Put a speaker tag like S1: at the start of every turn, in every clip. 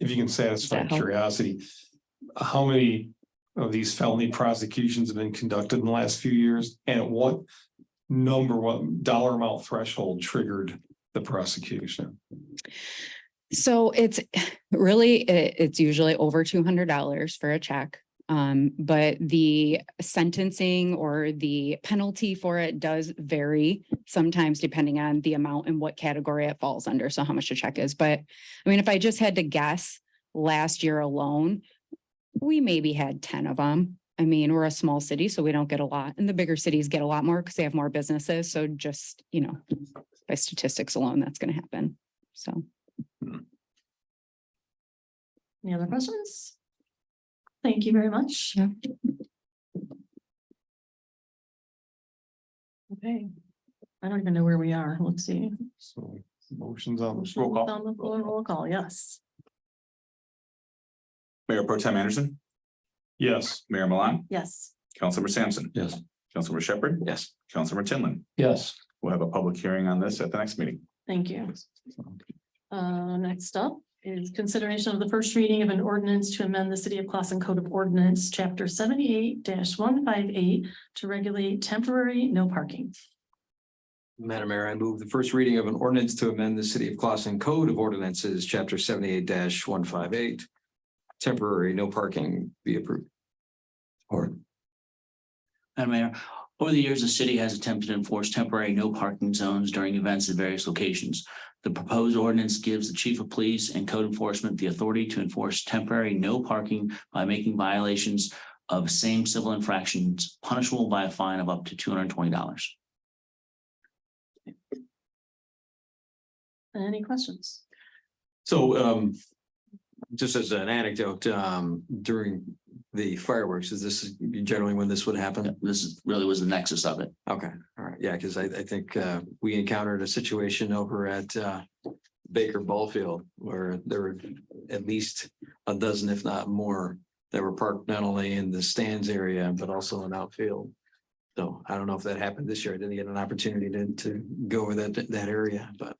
S1: if you can satisfy
S2: That help?
S1: curiosity. How many of these felony prosecutions have been conducted in the last few years and at what? Number, what dollar amount threshold triggered the prosecution?
S2: So it's really, it, it's usually over two hundred dollars for a check. Um, but the sentencing or the penalty for it does vary sometimes depending on the amount and what category it falls under. So how much a check is, but I mean, if I just had to guess last year alone, we maybe had ten of them. I mean, we're a small city, so we don't get a lot and the bigger cities get a lot more because they have more businesses. So just, you know, by statistics alone, that's going to happen. So.
S3: Any other questions? Thank you very much.
S2: Yeah.
S3: Okay, I don't even know where we are. Let's see.
S1: So motions on. the roll call.
S3: On the floor, roll call, yes.
S4: Mayor Pro Tem Anderson,
S1: Yes.
S4: Mayor Milan,
S3: Yes,
S4: Councilmember Sampson.
S1: Yes.
S4: Councilmember Shepherd. Yes. Councilmember Tinlin.
S1: Yes.
S4: We'll have a public hearing on this at the next meeting.
S3: thank you. Uh, next up is consideration of the first reading of an ordinance to amend the City of Classen Code of Ordinance, Chapter seventy-eight one five eight to regulate temporary no parking.
S5: Madam Mayor, I move the first reading of an ordinance to amend the city of Clausen Code of Ordinances, chapter seventy-eight one five eight. Temporary no parking be approved. Or
S6: Madam Mayor, over the years, the city has attempted to enforce temporary no parking zones during events at various locations. The proposed ordinance gives the chief of police and code enforcement the authority to enforce temporary no parking by making violations of same civil infractions punishable by a fine of up to two hundred and twenty dollars.
S3: Any questions?
S5: so um. Just as an anecdote, um, during the fireworks, is this generally when this would happen?
S6: This is really was the nexus of it.
S5: Okay, all right, yeah, because I, I think, uh, we encountered a situation over at, uh, Baker Ballfield where there were at least a dozen, if not more, that were parked not only in the stands area, but also in outfield. So I don't know if that happened this year. I didn't get an opportunity to, to go over that, that area, but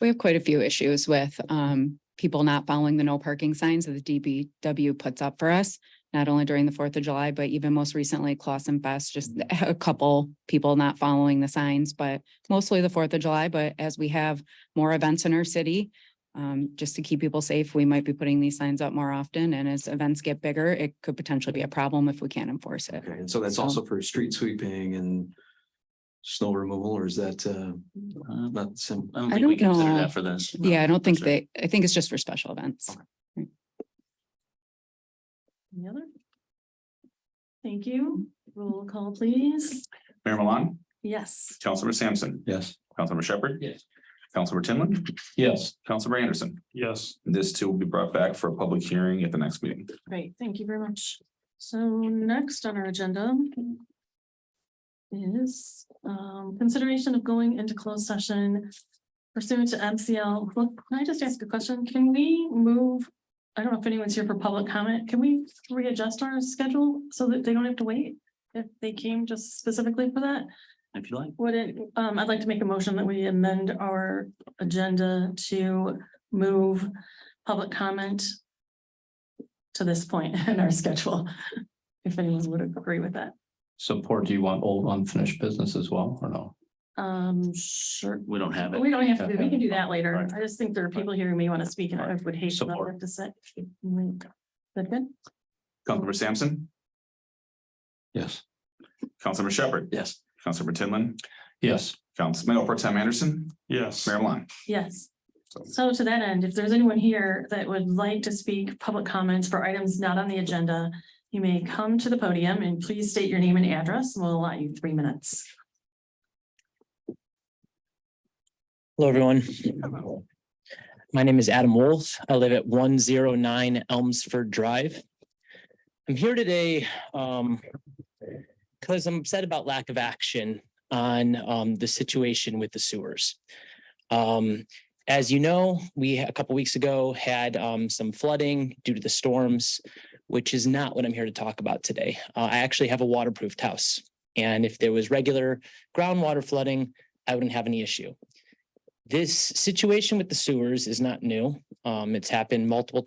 S2: We have quite a few issues with um people not following the no parking signs that the DBW puts up for us. Not only during the Fourth of July, but even most recently Clausen Fest, just a couple people not following the signs, but mostly the Fourth of July, but as we have more events in our city. Um, just to keep people safe, we might be putting these signs up more often and as events get bigger, it could potentially be a problem if we can't enforce it.
S5: okay, and so that's also for street sweeping and snow removal, or is that, uh,
S6: Uh,
S5: not sim?
S6: I don't think we
S2: don't
S6: consider
S2: know.
S6: that for this.
S2: Yeah, I don't think
S6: Sure.
S2: they, I think it's just for special events.
S3: Any other? Thank you. Roll call, please.
S4: Mayor Milan,
S3: Yes,
S4: Councilmember Sampson,
S1: Yes.
S4: Councilmember Shepherd.
S6: Yes.
S4: Councilmember Tinlin,
S1: Yes.
S4: Councilmember Anderson.
S1: Yes.
S4: This too will be brought back for a public hearing at the next meeting.
S3: great. Thank you very much. So next on our agenda is um consideration of going into closed session pursuant to MCL. Look, can I just ask a question? Can we move? I don't know if anyone's here for public comment. Can we readjust our schedule so that they don't have to wait? If they came just specifically for that?
S6: If you like.
S3: Would it, um, I'd like to make a motion that we amend our agenda to move public comment to this point in our schedule, if anyone would agree with that.
S7: support, do you want old unfinished business as well, or no?
S3: Um, sure,
S6: We don't have
S3: but
S6: it.
S3: we don't have to, we can do that
S6: All
S3: later.
S6: right.
S3: I just think there are people here who may want to speak and I would hate to not
S7: Support.
S3: have to say. Is That good?
S4: Councilmember Sampson,
S7: Yes.
S4: Councilmember Shepherd,
S7: Yes.
S4: Councilmember Tinlin,
S7: Yes.
S4: Council Mayor Pro Tem Anderson,
S1: Yes.
S4: Mayor Milan.
S3: Yes. So to that end, if there's anyone here that would like to speak public comments for items not on the agenda, you may come to the podium and please state your name and address. We'll allow you three minutes.
S8: Hello, everyone. My name is Adam Wolf. I live at one zero nine Elmsford Drive. I'm here today um because I'm upset about lack of action on um the situation with the sewers. Um, as you know, we a couple weeks ago had um some flooding due to the storms, which is not what I'm here to talk about today. Uh, I actually have a waterproofed house. And if there was regular groundwater flooding, I wouldn't have any issue this situation with the sewers is not new. Um, it's happened multiple times.